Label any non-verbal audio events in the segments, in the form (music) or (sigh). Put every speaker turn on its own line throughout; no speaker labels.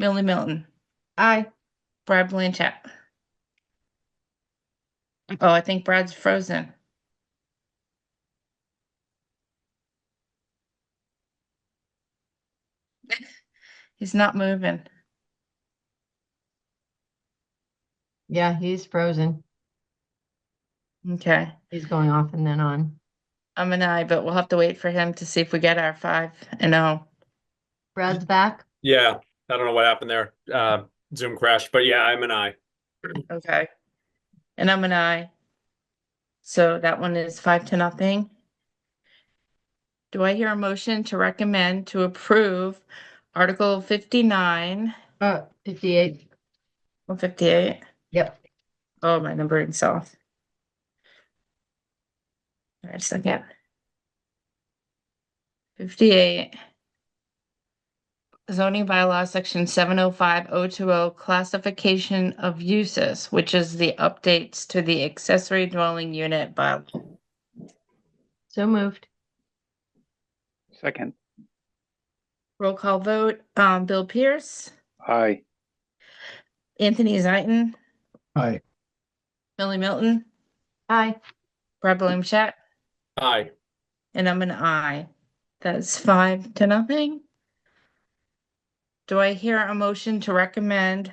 Millie Milton,
Aye.
Brad Blanchett. Oh, I think Brad's frozen. (laughs) He's not moving.
Yeah, he's frozen.
Okay,
He's going off and then on.
I'm an I, but we'll have to wait for him to see if we get our five and oh.
Brad's back.
Yeah, I don't know what happened there. Uh, Zoom crashed, but yeah, I'm an I.
Okay. And I'm an I. So that one is five to nothing. Do I hear a motion to recommend to approve Article fifty-nine,
Uh, fifty-eight.
one fifty-eight?
Yep.
Oh, my numbering's off. All right, second. Fifty-eight. Zoning bylaw, section seven oh five oh two oh, classification of uses, which is the updates to the accessory dwelling unit by.
So moved.
Second,
Roll call vote, um, Bill Pierce,
aye.
Anthony Zaitin,
Aye.
Millie Milton,
Aye.
Brad Blanchett,
Aye.
And I'm an I. That's five to nothing. Do I hear a motion to recommend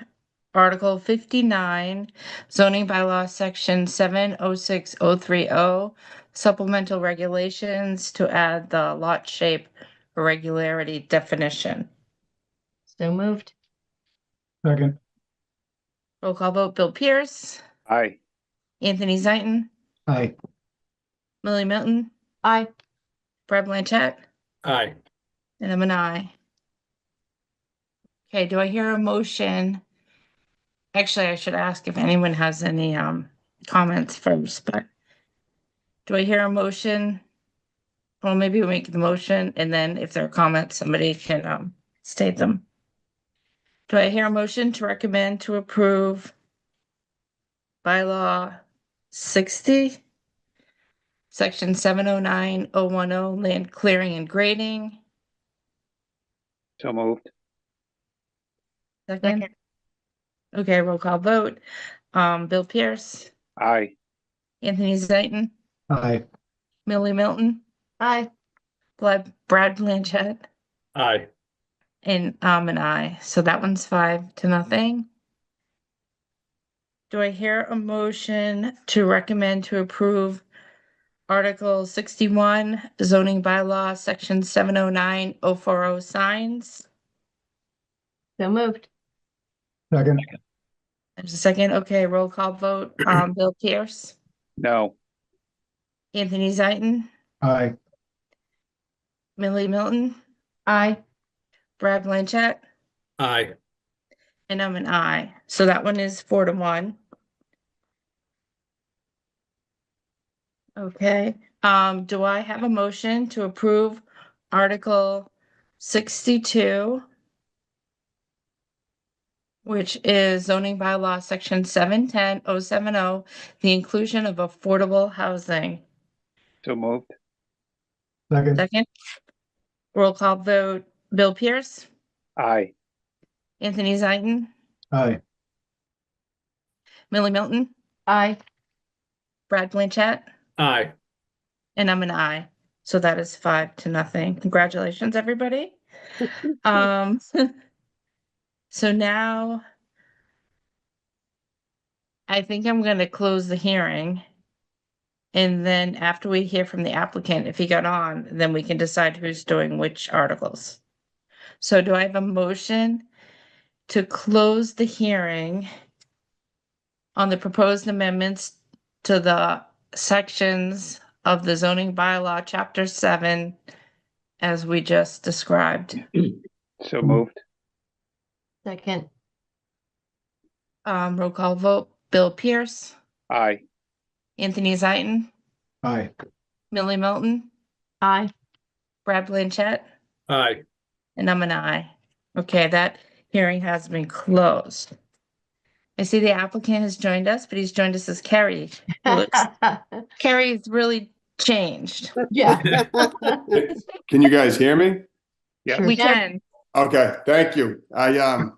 Article fifty-nine zoning bylaw section seven oh six oh three oh supplemental regulations to add the lot shape irregularity definition?
So moved.
Second.
Roll call vote, Bill Pierce,
Aye.
Anthony Zaitin,
Aye.
Millie Milton,
Aye.
Brad Blanchett,
Aye.
and I'm an I. Okay, do I hear a motion? Actually, I should ask if anyone has any um comments first, but do I hear a motion? Well, maybe we make the motion and then if there are comments, somebody can um state them. Do I hear a motion to recommend to approve bylaw sixty? Section seven oh nine oh one oh land clearing and grading.
So moved.
Second. Okay, roll call vote. Um, Bill Pierce,
Aye.
Anthony Zaitin,
Aye.
Millie Milton,
Aye.
Brad Brad Blanchett,
Aye.
and um, and I. So that one's five to nothing. Do I hear a motion to recommend to approve Article sixty-one zoning bylaw, section seven oh nine oh four oh signs?
So moved.
Second.
There's a second. Okay, roll call vote. Um, Bill Pierce,
No.
Anthony Zaitin,
Aye.
Millie Milton.
Aye.
Brad Blanchett,
Aye.
and I'm an I. So that one is four to one. Okay, um, do I have a motion to approve Article sixty-two? Which is zoning bylaw, section seven ten oh seven oh, the inclusion of affordable housing.
So moved.
Second.
Second? Roll call vote, Bill Pierce,
Aye.
Anthony Zaitin,
Aye.
Millie Milton,
Aye.
Brad Blanchett.
Aye.
And I'm an I. So that is five to nothing. Congratulations, everybody. Um, (laughs) so now I think I'm gonna close the hearing. And then after we hear from the applicant, if he got on, then we can decide who's doing which articles. So do I have a motion to close the hearing on the proposed amendments to the sections of the zoning bylaw, chapter seven, as we just described.
So moved.
Second.
Um, roll call vote, Bill Pierce,
Aye.
Anthony Zaitin,
Aye.
Millie Milton,
Aye.
Brad Blanchett,
Aye.
and I'm an I. Okay, that hearing has been closed. I see the applicant has joined us, but he's joined us as Carrie. who looks- Carrie's really changed.
(laughs) Yeah.
(laughs) Can you guys hear me?
Yeah.
Sure
We
can.
can.
Okay, thank you. I, um,